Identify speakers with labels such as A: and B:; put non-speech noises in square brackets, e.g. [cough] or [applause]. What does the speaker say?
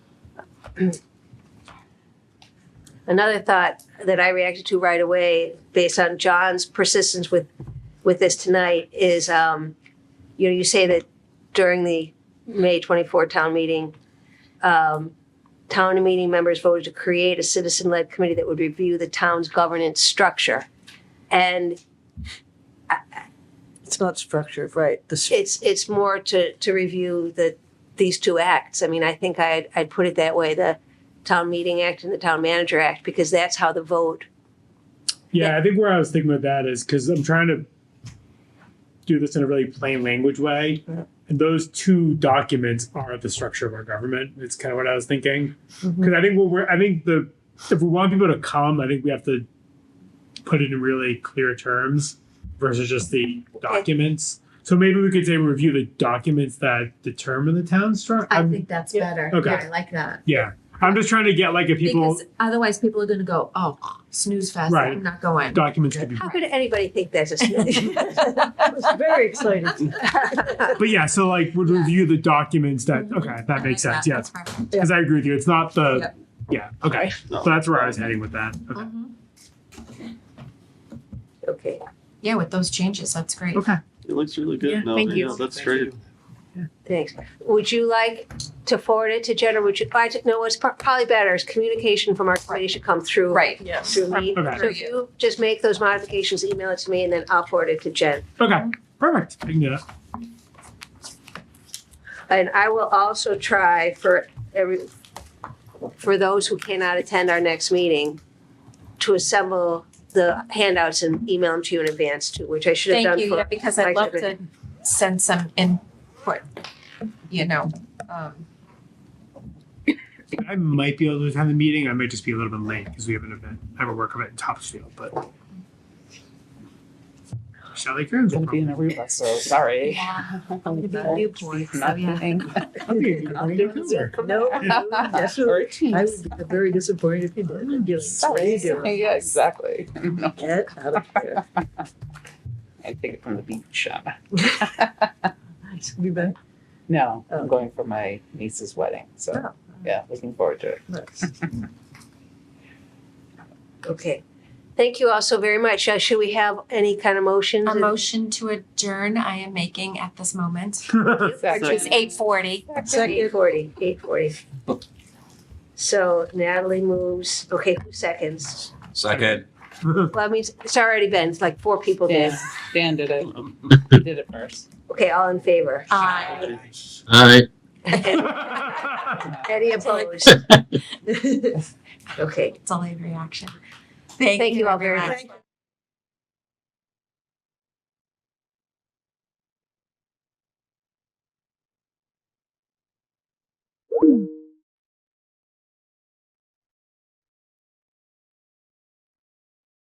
A: Another thought that I reacted to right away, based on John's persistence with, with this tonight, is, um, you know, you say that during the May twenty-four town meeting, um, town meeting members voted to create a citizen-led committee that would review the town's governance structure. And
B: It's not structured, right? The s-
A: it's it's more to to review the these two acts. I mean, I think I'd I'd put it that way: the town meeting act and the town manager act, because that's how the vote.
C: Yeah, I think where I was thinking with that is because I'm trying to do this in a really plain language way.
B: Yeah.
C: And those two documents are the structure of our government. It's kind of what I was thinking. Because
D: Mm-hmm.
B: Mhm.
C: I think what we're, I think the, if we want people to come, I think we have to put it in really clear terms versus just the documents. So maybe we could say review the documents that determine the town structure.
D: I think that's better.
C: Okay.
D: Yeah, I like that.
C: yeah. I'm just trying to get like if people,
D: because otherwise people are going to go, oh, snooze fest.
C: Right.
D: I'm not going. [laughs]
C: documents could be
A: How could anybody think that's a [laughs] snitch?
B: I was very excited.
C: But yeah, so like would
D: Yeah.
C: review the documents that
D: Mhm.
C: okay, that makes sense. Yeah,
D: That's perfect.
C: because I agree with you. It's not the
D: Yep.
C: yeah. Okay, so that's where I was heading with that. Okay.
D: Mhm.
A: [laughs] okay.
D: Yeah, with those changes, that's great.
C: Okay.
E: It looks really good.
C: Yeah,
E: no,
F: thank
E: I
F: you.
E: know, that's great.
A: Thanks. Would you like to forward it to Jen, or would you? I don't know what's pro- probably better is communication from our committee should come through.
D: Right.
B: Yes.
A: Through me.
C: Okay.
A: So if you just make those modifications, email it to me, and then I'll forward it to Jen.
C: Okay. Perfect. I can do that.
A: And I will also try for every, for those who cannot attend our next meeting, to assemble the handouts and email them to you in advance too, which I should have
F: Thank
A: done
F: you, yeah,
A: for.
F: because I'd
A: Mike
F: love to,
A: Everett.
D: Send some input, you know. Um,
C: I might be able to attend the meeting. I might just be a little bit late because we have an event. I have a work event in Topsfield, but Sally Kearns. will
G: gonna be in Aruba, so
B: [laughs]
G: sorry.
D: gonna be in Newport, so yeah. [laughs]
C: probably- I'll be in Denver.
B: No, yes, I would be very disappointed if you didn't [laughs] do it.
G: Sorry. Yeah, exactly. No,
B: Get out of here.
G: I take it from the beach. um,
B: Be back.
G: No,
B: Oh.
G: I'm going for my niece's wedding, so,
B: Oh.
G: yeah, looking forward to it.
A: Okay. Thank you all so very much. Uh, Should we have any kind of motions?
D: A motion to adjourn I am making at this moment,
G: Exactly.
D: which is eight forty.
B: Second.
A: Eight forty, eight forty. So Natalie moves, okay, who seconds?
H: Second.
A: Well, I mean, it's already been, it's like four people did.
G: Dan, Dan did it,
E: Um,
G: He did it first.
A: Okay, all in [laughs] favor?
D: Uh,
H: All right.
C: [laughs]
A: Any opposed? [laughs] Okay.
D: it's a late reaction. Thank,
A: Thank you all very
D: everyone.
A: much.
B: Thank you.